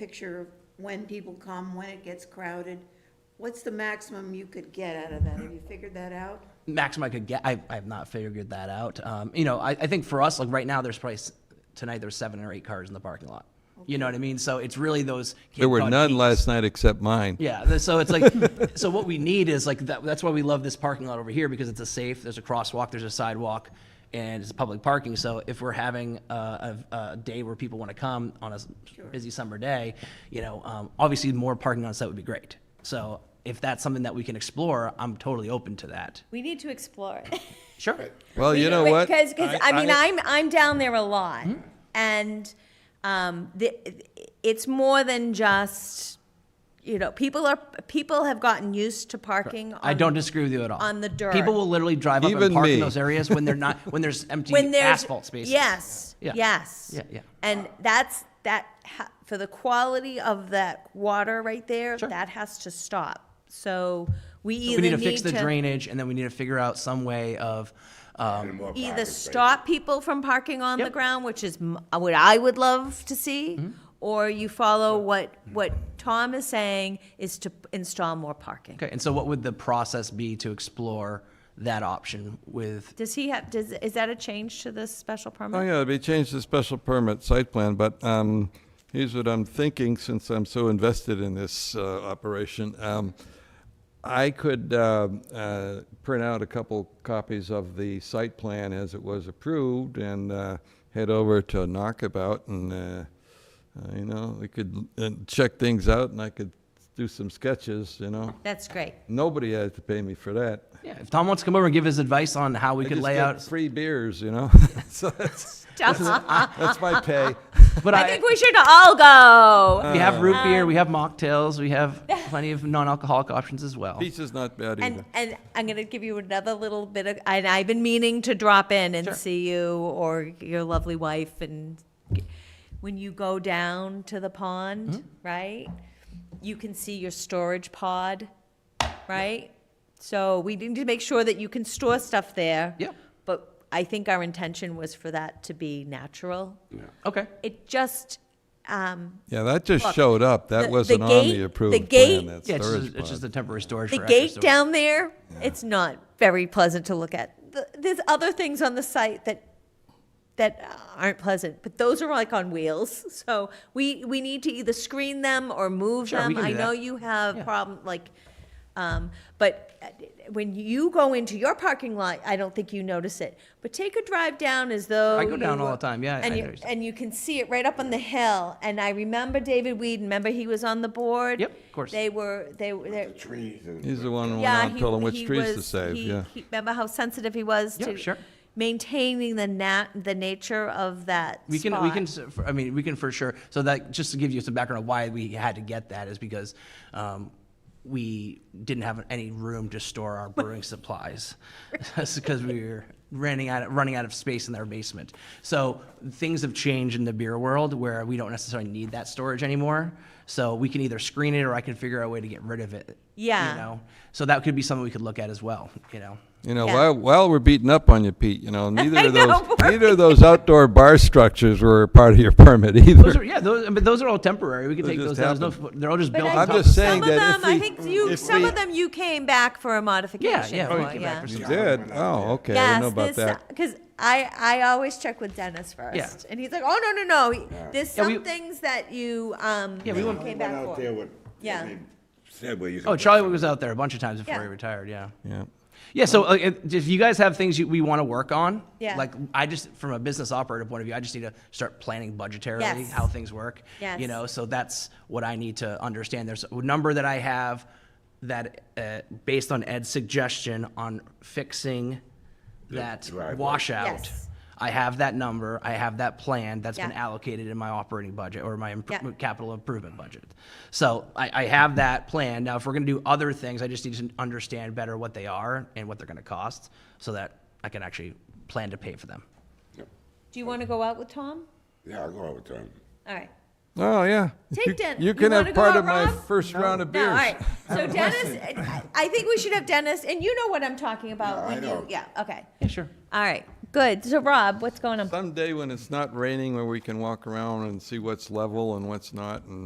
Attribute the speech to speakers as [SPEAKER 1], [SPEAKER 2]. [SPEAKER 1] picture of when people come, when it gets crowded? What's the maximum you could get out of that? Have you figured that out?
[SPEAKER 2] maximum I could get. I, I've not figured that out. Um, you know, I, I think for us, like right now, there's probably s- tonight there's seven or eight cars in the parking lot. You know what I mean? So it's really those. Cape
[SPEAKER 3] There were
[SPEAKER 2] Cod
[SPEAKER 3] none
[SPEAKER 2] peaks.
[SPEAKER 3] last night except mine.
[SPEAKER 2] Yeah, th- so it's like, so what we need is like that, that's why we love this parking lot over here because it's a safe. There's a crosswalk, there's a sidewalk, and it's public parking. So if we're having a, a, a day where people want to come on a s- busy summer day, you know, um, obviously more parking on site would be great. So if that's something that we can explore, I'm totally open to that.
[SPEAKER 4] We need to explore it.
[SPEAKER 2] Sure.
[SPEAKER 3] Well, Oh, you know what?
[SPEAKER 4] Because, because I,
[SPEAKER 3] I-
[SPEAKER 4] mean,
[SPEAKER 3] I-
[SPEAKER 4] I, am I'm down there a lot,
[SPEAKER 2] Hmm?
[SPEAKER 4] and um, the, it's more than just you know people are people have gotten used to parking. On,
[SPEAKER 2] I don't disagree with you at all.
[SPEAKER 4] on the dirt.
[SPEAKER 2] People will literally drive up
[SPEAKER 3] Even
[SPEAKER 2] and park
[SPEAKER 3] me.
[SPEAKER 2] in those areas when they're not, when there's empty
[SPEAKER 4] when there's
[SPEAKER 2] asphalt spaces.
[SPEAKER 4] Yes,
[SPEAKER 2] Yeah.
[SPEAKER 4] yes,
[SPEAKER 2] Yeah, yeah.
[SPEAKER 4] and that's that ha- for the quality of that water right there.
[SPEAKER 2] Sure.
[SPEAKER 4] That has to stop. So we
[SPEAKER 2] We
[SPEAKER 4] either
[SPEAKER 2] need to fix the drainage and then we need to figure out some way of, um,
[SPEAKER 4] either stop people from parking on the
[SPEAKER 2] Yep. Mm-hmm.
[SPEAKER 4] ground, which is m- what I would love to see, or you follow what, what Tom is saying is to p- install more parking.
[SPEAKER 2] okay, and so what would the process be to explore that option with,
[SPEAKER 4] Does he have, does, is that a change to this special
[SPEAKER 3] Oh,
[SPEAKER 4] permit?
[SPEAKER 3] yeah, it'd be changed to special permit site plan, but um, here's what I'm thinking, since I'm so invested in this uh, operation. Um, I could uh, uh, print out a couple copies of the site plan as it was approved and uh, head over to Knockabout and, uh, uh, you know, we could uh, check things out and I could do some sketches, you know?
[SPEAKER 4] That's great.
[SPEAKER 3] Nobody has to pay me for that.
[SPEAKER 2] yeah, if Tom wants to come over and give his advice on how we
[SPEAKER 3] I
[SPEAKER 2] could
[SPEAKER 3] just
[SPEAKER 2] lay
[SPEAKER 3] get
[SPEAKER 2] out.
[SPEAKER 3] free beers, you know? So that's,
[SPEAKER 4] I
[SPEAKER 3] that's my pay.
[SPEAKER 4] ah.
[SPEAKER 2] But I,
[SPEAKER 4] think Um, we should all go.
[SPEAKER 2] we have root beer, we have mocktails, we have plenty of non-alcoholic options as well.
[SPEAKER 3] Pizza's not bad either.
[SPEAKER 4] And, and I'm gonna give you another little bit of, and I've been meaning to drop in and see you or your lovely wife and g- when you go down to the pond, right? You can see your storage pod, right? So we need to make sure that you can store stuff there.
[SPEAKER 2] Yeah.
[SPEAKER 4] But I think our intention was for that to be natural.
[SPEAKER 2] Okay,
[SPEAKER 4] It just, um,
[SPEAKER 3] Yeah, that just
[SPEAKER 4] Look,
[SPEAKER 3] showed up.
[SPEAKER 4] the-
[SPEAKER 3] That
[SPEAKER 4] the
[SPEAKER 3] wasn't on
[SPEAKER 4] gate-
[SPEAKER 3] the
[SPEAKER 4] the
[SPEAKER 3] approved
[SPEAKER 4] gate-
[SPEAKER 3] plan, that
[SPEAKER 2] yeah, it's just,
[SPEAKER 3] storage
[SPEAKER 2] a- it's just
[SPEAKER 3] pod.
[SPEAKER 2] a temporary storage for
[SPEAKER 4] the
[SPEAKER 2] extra
[SPEAKER 4] gate
[SPEAKER 2] storage.
[SPEAKER 4] down there, it's not very pleasant to look at. Th- There's other things on the site that that aren't pleasant, but those are like on wheels. So we we need to either screen them or move
[SPEAKER 2] Sure, we can
[SPEAKER 4] them. I
[SPEAKER 2] do
[SPEAKER 4] know
[SPEAKER 2] that.
[SPEAKER 4] you have
[SPEAKER 2] Yeah.
[SPEAKER 4] problem like, um, but uh, when you go into your parking lot, I don't think you notice it. But take a drive down as though
[SPEAKER 2] I go
[SPEAKER 4] you
[SPEAKER 2] down all
[SPEAKER 4] were-
[SPEAKER 2] the time, yeah, I-
[SPEAKER 4] and
[SPEAKER 2] I
[SPEAKER 4] you
[SPEAKER 2] notice.
[SPEAKER 4] and you can see it right up on the hill. And I remember David Weed. Remember he was on the board.
[SPEAKER 2] Yep, of course.
[SPEAKER 4] They were they were. they-
[SPEAKER 5] trees and.
[SPEAKER 3] He's the one who went
[SPEAKER 4] yeah,
[SPEAKER 3] on
[SPEAKER 4] he-
[SPEAKER 3] telling which
[SPEAKER 4] he
[SPEAKER 3] trees to
[SPEAKER 4] was-
[SPEAKER 3] save,
[SPEAKER 4] he-
[SPEAKER 3] yeah.
[SPEAKER 4] he- Remember how sensitive he was
[SPEAKER 2] Yeah,
[SPEAKER 4] to
[SPEAKER 2] sure.
[SPEAKER 4] maintaining the nat, the nature of that
[SPEAKER 2] We can, we can,
[SPEAKER 4] spot.
[SPEAKER 2] s- f- I mean, we can for sure, so that, just to give you some background of why we had to get that is because, um, we didn't have any room to store our brewing supplies. That's because we were running out, of- running out of space in our basement. So things have changed in the beer world where we don't necessarily need that storage anymore. So we can either screen it or I can figure out a way to get rid of it.
[SPEAKER 4] Yeah.
[SPEAKER 2] You know, so that could be something we could look at as well, you know?
[SPEAKER 3] You know,
[SPEAKER 4] Yeah.
[SPEAKER 3] while, while we're beating up on you, Pete, you know, neither of those,
[SPEAKER 4] know, we're-
[SPEAKER 3] neither of those outdoor bar structures were a part of your permit either.
[SPEAKER 2] Those are, yeah, those, but those are all temporary. We can take those
[SPEAKER 3] just
[SPEAKER 2] down. There's no- They're all just
[SPEAKER 4] But
[SPEAKER 2] built
[SPEAKER 4] I
[SPEAKER 2] on
[SPEAKER 3] I'm
[SPEAKER 2] top
[SPEAKER 4] think
[SPEAKER 2] of
[SPEAKER 3] just
[SPEAKER 2] stuff.
[SPEAKER 3] saying
[SPEAKER 4] some of
[SPEAKER 3] that
[SPEAKER 4] them,
[SPEAKER 3] if
[SPEAKER 4] I
[SPEAKER 3] we-
[SPEAKER 4] think you,
[SPEAKER 5] if
[SPEAKER 4] some
[SPEAKER 5] we-
[SPEAKER 4] of them you came back for a modification.
[SPEAKER 2] yeah, Oh, we
[SPEAKER 4] for,
[SPEAKER 2] came back for
[SPEAKER 3] You
[SPEAKER 2] some-
[SPEAKER 3] did? Oh, okay. I didn't know about
[SPEAKER 4] Yes, this, uh,
[SPEAKER 3] that.
[SPEAKER 4] because I, I always check with Dennis first. And he's like, oh, no, no, no, there's
[SPEAKER 2] Yeah,
[SPEAKER 4] some
[SPEAKER 2] we-
[SPEAKER 4] things that you, um,
[SPEAKER 2] Yeah, we
[SPEAKER 4] you
[SPEAKER 2] went-
[SPEAKER 4] came
[SPEAKER 5] Went
[SPEAKER 4] back
[SPEAKER 5] out there
[SPEAKER 4] for.
[SPEAKER 5] with.
[SPEAKER 4] Yeah.
[SPEAKER 5] they Said where you. could
[SPEAKER 2] Oh,
[SPEAKER 5] put
[SPEAKER 2] Charlie
[SPEAKER 5] some-
[SPEAKER 2] was out there a bunch of times before
[SPEAKER 4] Yeah.
[SPEAKER 2] he retired. Yeah.
[SPEAKER 3] Yeah.
[SPEAKER 2] Yeah. So uh, if if you guys have things you, we want to work on,
[SPEAKER 4] Yeah.
[SPEAKER 2] like I just from a business operator point of view, I just need to start planning budgetarily
[SPEAKER 4] Yes.
[SPEAKER 2] how things work. You
[SPEAKER 4] Yes.
[SPEAKER 2] know, so that's what I need to understand. There's a number that I have that, uh, based on Ed's suggestion on fixing that
[SPEAKER 5] driveway.
[SPEAKER 2] washout.
[SPEAKER 4] Yes.
[SPEAKER 2] I have that number. I have that plan that's been
[SPEAKER 4] Yeah.
[SPEAKER 2] allocated in my operating budget or my impro-
[SPEAKER 4] Yeah.
[SPEAKER 2] capital improvement budget. So I, I have that plan. Now, if we're going to do other things, I just need to understand better what they are and what they're going to cost so that I can actually plan to pay for them.
[SPEAKER 4] Do you want to go out with Tom?
[SPEAKER 5] Yeah, I'll go out with Tom.
[SPEAKER 4] All right.
[SPEAKER 3] Oh, yeah.
[SPEAKER 4] Take
[SPEAKER 3] You-
[SPEAKER 4] Den- you
[SPEAKER 3] You can
[SPEAKER 4] wanna
[SPEAKER 3] have
[SPEAKER 4] go
[SPEAKER 3] part
[SPEAKER 4] out,
[SPEAKER 3] of my
[SPEAKER 4] Rob?
[SPEAKER 3] first round of
[SPEAKER 4] No, all
[SPEAKER 3] beers.
[SPEAKER 4] right. So Dennis, I- I think we should have Dennis, and you know what I'm talking about
[SPEAKER 5] No, I
[SPEAKER 4] when you,
[SPEAKER 5] know.
[SPEAKER 4] yeah, okay.
[SPEAKER 2] Yeah, sure.
[SPEAKER 4] All right, good. So Rob, what's going on?
[SPEAKER 3] Someday when it's not raining, where we can walk around and see what's level and what's not and